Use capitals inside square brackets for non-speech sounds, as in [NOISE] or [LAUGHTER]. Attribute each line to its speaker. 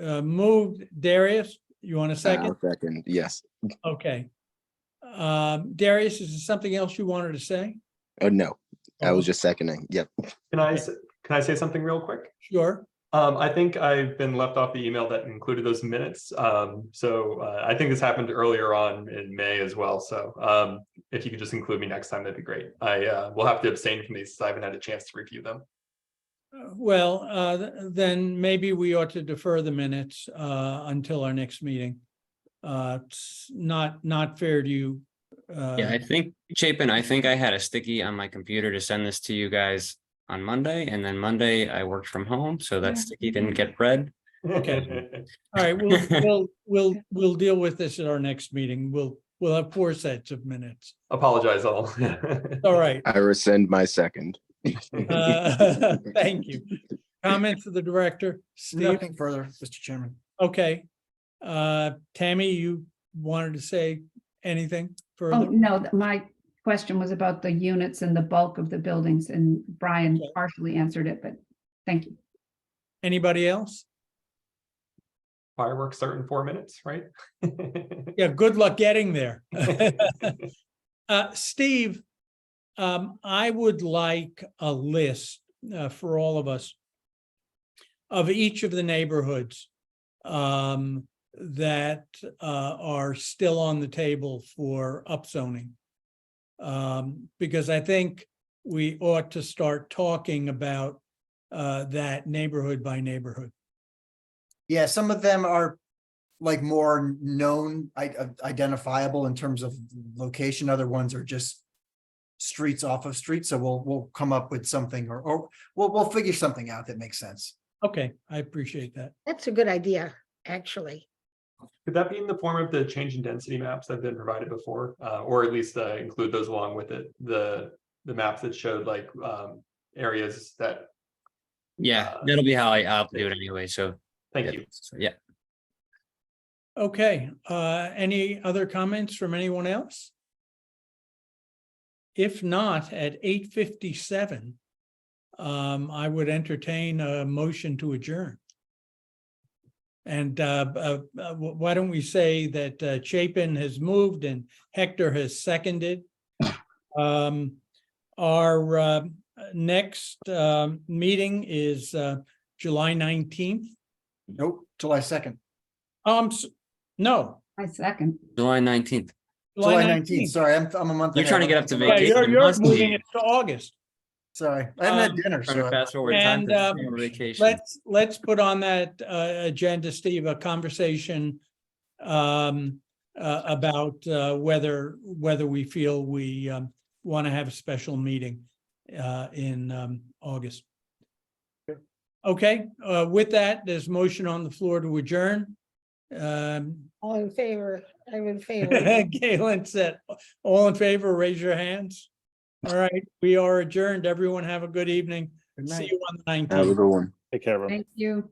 Speaker 1: uh, moved Darius, you want a second?
Speaker 2: I'll Second, yes.
Speaker 1: Okay. Um, Darius, is there something else you wanted to say?
Speaker 2: Oh, no, I was just seconding. Yep.
Speaker 3: Can I, s- can I say something real quick?
Speaker 1: Sure.
Speaker 3: Um, I think I've been left off the email that included those minutes. Um, so, uh, I think this happened earlier on in May as well. So, um, if you could just include me next time, that'd be great. I, uh, will have to abstain from these. 'cause I haven't had a chance to review them.
Speaker 1: Uh, Well, uh, th- then maybe we ought to defer the minutes, uh, until our next meeting. Uh, it's not, not fair to you. uh,
Speaker 4: Yeah, I think, Chapin, I think I had a sticky on my computer to send this to you guys on Monday, and then Monday I worked from home, so that sticky didn't get read.
Speaker 3: Okay.
Speaker 1: All right, we'll,
Speaker 4: [LAUGHS]
Speaker 1: we'll, we'll, we'll deal with this at our next meeting. We'll, we'll have four sets of minutes.
Speaker 3: [LAUGHS] Apologize all.
Speaker 1: All right,
Speaker 2: I rescind my second.
Speaker 1: uh, [LAUGHS] thank you. Comments for the director, Steve?
Speaker 5: Nothing further, Mr. Chairman.
Speaker 1: Okay. Uh, Tammy, you wanted to say anything
Speaker 6: Oh,
Speaker 1: further?
Speaker 6: no, th- my question was about the units and the bulk of the buildings and Brian
Speaker 1: Okay.
Speaker 6: partially answered it, but thank you.
Speaker 1: Anybody else?
Speaker 3: [LAUGHS] Fireworks start in four minutes, right? [LAUGHS]
Speaker 1: Yeah, good luck getting there. Uh, Steve, um, I would like a list, uh, for all of us of each of the neighborhoods, um, that, uh, are still on the table for upzoning. Um, because I think we ought to start talking about, uh, that neighborhood by neighborhood.
Speaker 5: Yeah, some of them are like more known, i- i- identifiable in terms of location. Other ones are just streets off of streets. So we'll, we'll come up with something or, or we'll, we'll figure something out that makes sense.
Speaker 1: Okay, I appreciate that.
Speaker 7: That's a good idea, actually.
Speaker 3: Could that be in the form of the change in density maps that have been provided before, uh, or at least uh, include those along with it? The the maps that showed like um, areas that.
Speaker 4: Yeah,
Speaker 3: Uh,
Speaker 4: that'll be how I, I'll do it anyway, so.
Speaker 3: Thank
Speaker 4: yeah,
Speaker 3: you.
Speaker 4: so, Yeah,
Speaker 1: Okay, uh, any other comments from anyone else? If not, at eight fifty-seven, um, I would entertain a motion to adjourn. And, uh, uh, uh, wh- why don't we say that uh, Chapin has moved and Hector has
Speaker 5: [COUGHS]
Speaker 1: seconded? Um, our, uh, next, um, meeting is, uh, July nineteenth.
Speaker 5: Nope, July second,
Speaker 1: Um, s- no.
Speaker 6: I second.
Speaker 4: July nineteenth.
Speaker 5: July nineteenth. Sorry, I'm, I'm a month.
Speaker 4: You're trying to get up to
Speaker 5: ahead.
Speaker 1: Yeah,
Speaker 4: vacation.
Speaker 1: you're, you're
Speaker 4: must
Speaker 1: moving
Speaker 4: be.
Speaker 1: it to August.
Speaker 5: Sorry, I haven't
Speaker 1: Um,
Speaker 5: had dinner,
Speaker 4: Trying to
Speaker 5: so
Speaker 4: fast forward time.
Speaker 1: And,
Speaker 4: to
Speaker 1: um,
Speaker 4: summer vacation.
Speaker 1: Let's, let's put on that, uh, agenda, Steve, a conversation um, uh, about, uh, whether, whether we feel we, um, want to have a special meeting, uh, in, um, August. Okay, uh, with that, there's motion on the floor to adjourn. Um,
Speaker 7: All in favor, I'm in favor.
Speaker 1: Galen said, all in favor, raise your hands. All right, we are adjourned. Everyone have a good evening.
Speaker 5: Good night.
Speaker 1: See you on the
Speaker 2: Have a
Speaker 1: nineteenth.
Speaker 2: good one.
Speaker 8: Take care of him.
Speaker 6: Thank you.